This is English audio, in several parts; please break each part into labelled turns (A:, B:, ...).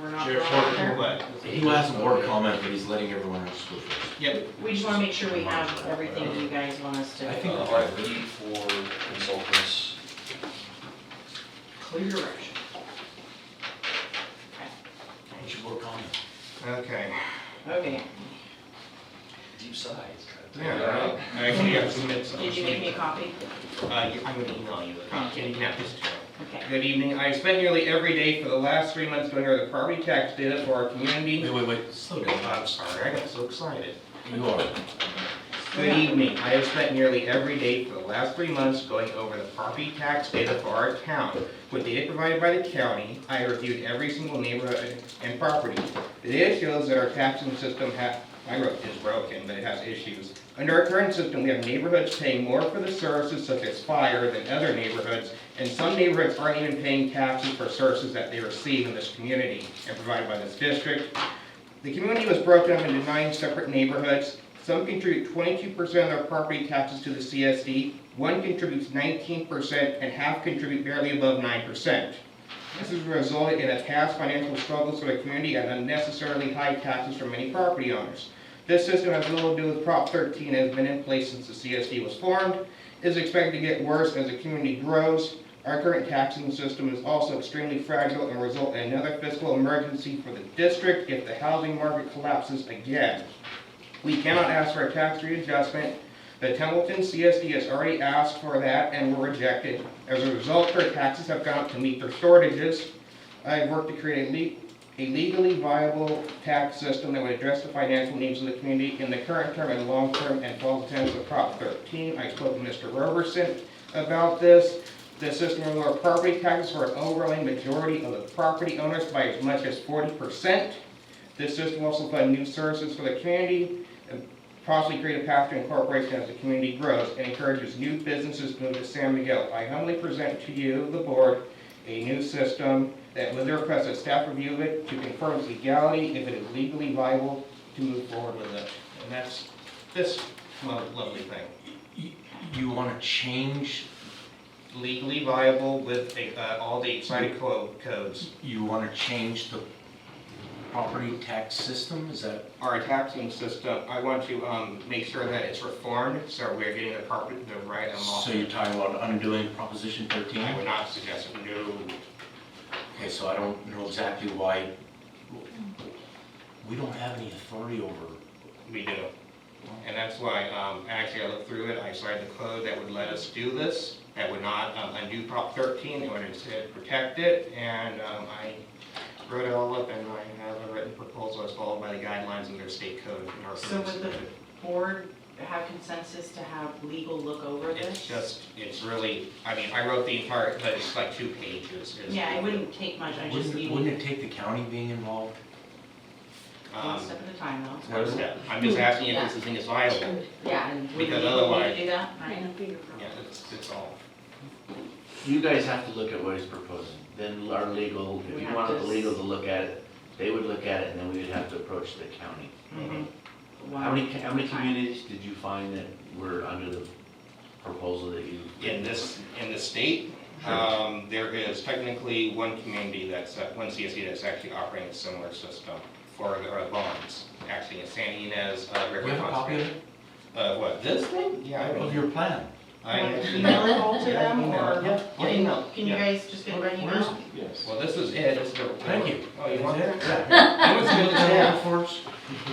A: we're not.
B: Sheriff's
A: going out there.
B: working away.
C: He has a word comment, but he's letting everyone else go first.
B: Yep,
A: We just wanna make sure we have everything you guys want us
C: I
A: to
C: think-
D: Uh, RFP for consultants.
A: clear direction.
C: What's your word comment?
B: okay.
A: Okay,
D: Deep sighs.
B: Yeah, right. I actually got some bits.
A: did you make me a copy?
B: Uh, yeah, I'm gonna email you a copy, and you can have this tomorrow.
A: Okay.
B: Good evening. I have spent nearly every day for the last three months going over the property tax data for our community.
C: Wait, wait, wait, slow down.
B: Oh, I'm sorry, I got so excited.
C: You are.
B: Good evening. I have spent nearly every day for the last three months going over the property tax data for our town. With data provided by the county, I reviewed every single neighborhood and property. The data shows that our taxing system ha, I wrote is broken, but it has issues. Under our current system, we have neighborhoods paying more for the services such as fire than other neighborhoods, and some neighborhoods aren't even paying taxes for services that they receive in this community and provided by this district. The community was broken up into nine separate neighborhoods. Some contribute twenty-two percent of their property taxes to the CSD, one contributes nineteen percent, and half contribute barely above nine percent. This has resulted in a past financial struggles for the community and unnecessarily high taxes for many property owners. This system has little to do with Prop thirteen, and has been in place since the CSD was formed, is expected to get worse as the community grows. Our current taxing system is also extremely fragile and result in another fiscal emergency for the district if the housing market collapses again. We cannot ask for a tax readjustment. The Templeton CSD has already asked for that and were rejected. As a result, their taxes have gone up to meet their shortages. I have worked to create a le- a legally viable tax system that would address the financial needs of the community in the current term and long term and falls attendance of Prop 13. I spoke to Mr. Roberson about this. The system will lower property taxes for an overwhelming majority of the property owners by as much as 40%. This system will also fund new services for the community and possibly create a path to incorporation as the community grows and encourages new businesses to move to San Miguel. I humbly present to you, the board, a new system that with the request that staff review it to confirm its legality, if it is legally viable to move forward with it. And that's this lo- lovely thing,
C: You- You wanna change,
B: legally viable with uh, all the excited co- codes.
C: you wanna change the property tax system, is that?
B: Our taxing system, I want to um, make sure that it's reformed, so we're getting the proper, the right amount.
C: So you're talking about undoing Proposition
B: I
C: 13?
B: would not suggest it, no.
C: Okay, so I don't know exactly why, we don't have any authority over
B: We do. And that's why, um, actually, I looked through it, I cited the code that would let us do this, that would not um, undo Prop thirteen, it would instead protect it, and, um, I wrote it all up, and I have a written proposal as followed by the guidelines of their state code and our.
A: So
B: codes.
A: would the board have consensus to have legal look over this?
B: It's just, it's really, I mean, I wrote the entire, but it's like two pages. is-
A: Yeah, it wouldn't take much, I just
C: Wouldn't,
A: need
C: it- wouldn't it take the county being involved?
A: one
B: Um,
A: step at a time though.
B: what is that? I'm just asking if this thing is viable,
A: Yeah, and would
B: Because
A: legal need to
B: otherwise-
A: do that? Right.
B: yeah, it's, it's all.
E: You guys have to look at what he's proposing, then our legal,
A: We
E: if you
A: have
E: wanted
A: to
E: the
A: s-
E: legal to look at it, they would look at it, and then we would have to approach the county.
B: Mhm.
E: How many,
A: Mm-hmm. Wow.
E: how many
A: Time.
E: communities did you find that were under the proposal that you?
B: In this, in the state, um, there is technically one community that's, uh, one CSD that's actually operating a similar system for the uh, bonds, actually in San Ynez, uh,
C: Do
B: River.
C: you have a copy of
B: Conservation.
C: it?
B: Uh, what, this thing? Yeah, I
C: Of
B: don't.
C: your plan?
B: I
A: Want to
B: actually-
A: Email it all to
B: Yeah,
A: them
B: email.
A: or?
B: Yeah, email,
A: Can you
B: yeah.
A: guys just get it by
C: Where's-
A: email?
D: Yes.
B: Well, this is it, this is the.
C: Thank you.
B: Oh, you want that?
C: Yeah.
B: I was gonna
C: Yeah,
B: say,
C: for us.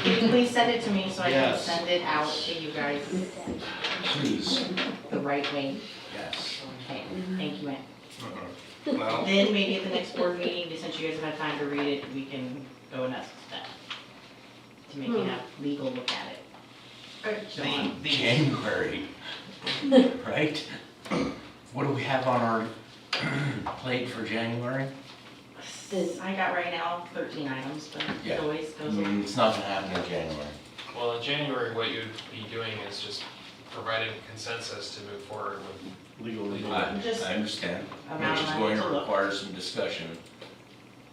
A: Can you please send it to me so I can
B: Yes.
A: send it out to you guys
C: Please,
A: the right way?
C: yes.
A: Okay, thank you, Ann.
B: mhm. Well,
A: Then maybe at the next board meeting, since you guys have had time to read it, we can go and ask that. To maybe have legal look at it. um,
B: the, the,
C: January, right? What do we have on our plate for January?
A: I got right now thirteen items, but it
C: Yeah.
A: always goes.
C: Mm, It's not gonna happen in January.
F: Well, in January, what you'd be doing is just providing consensus to move forward with.
E: Legal.
C: I,
A: Just
C: I understand,
A: amount
C: which
A: of money
C: is going to
A: to look.
C: require some discussion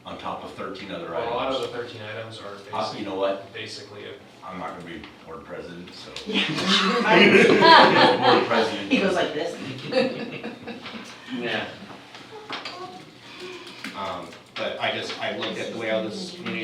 C: on top of thirteen other
F: Well, a lot of
C: items.
F: the thirteen items are
C: Uh, You
F: basically,
C: know what,
F: basically, a-
C: I'm not gonna be board president, so.
A: Yeah.
C: Board president.
A: He goes like this.
E: Yeah.
B: um, but I just, I looked at the way all this community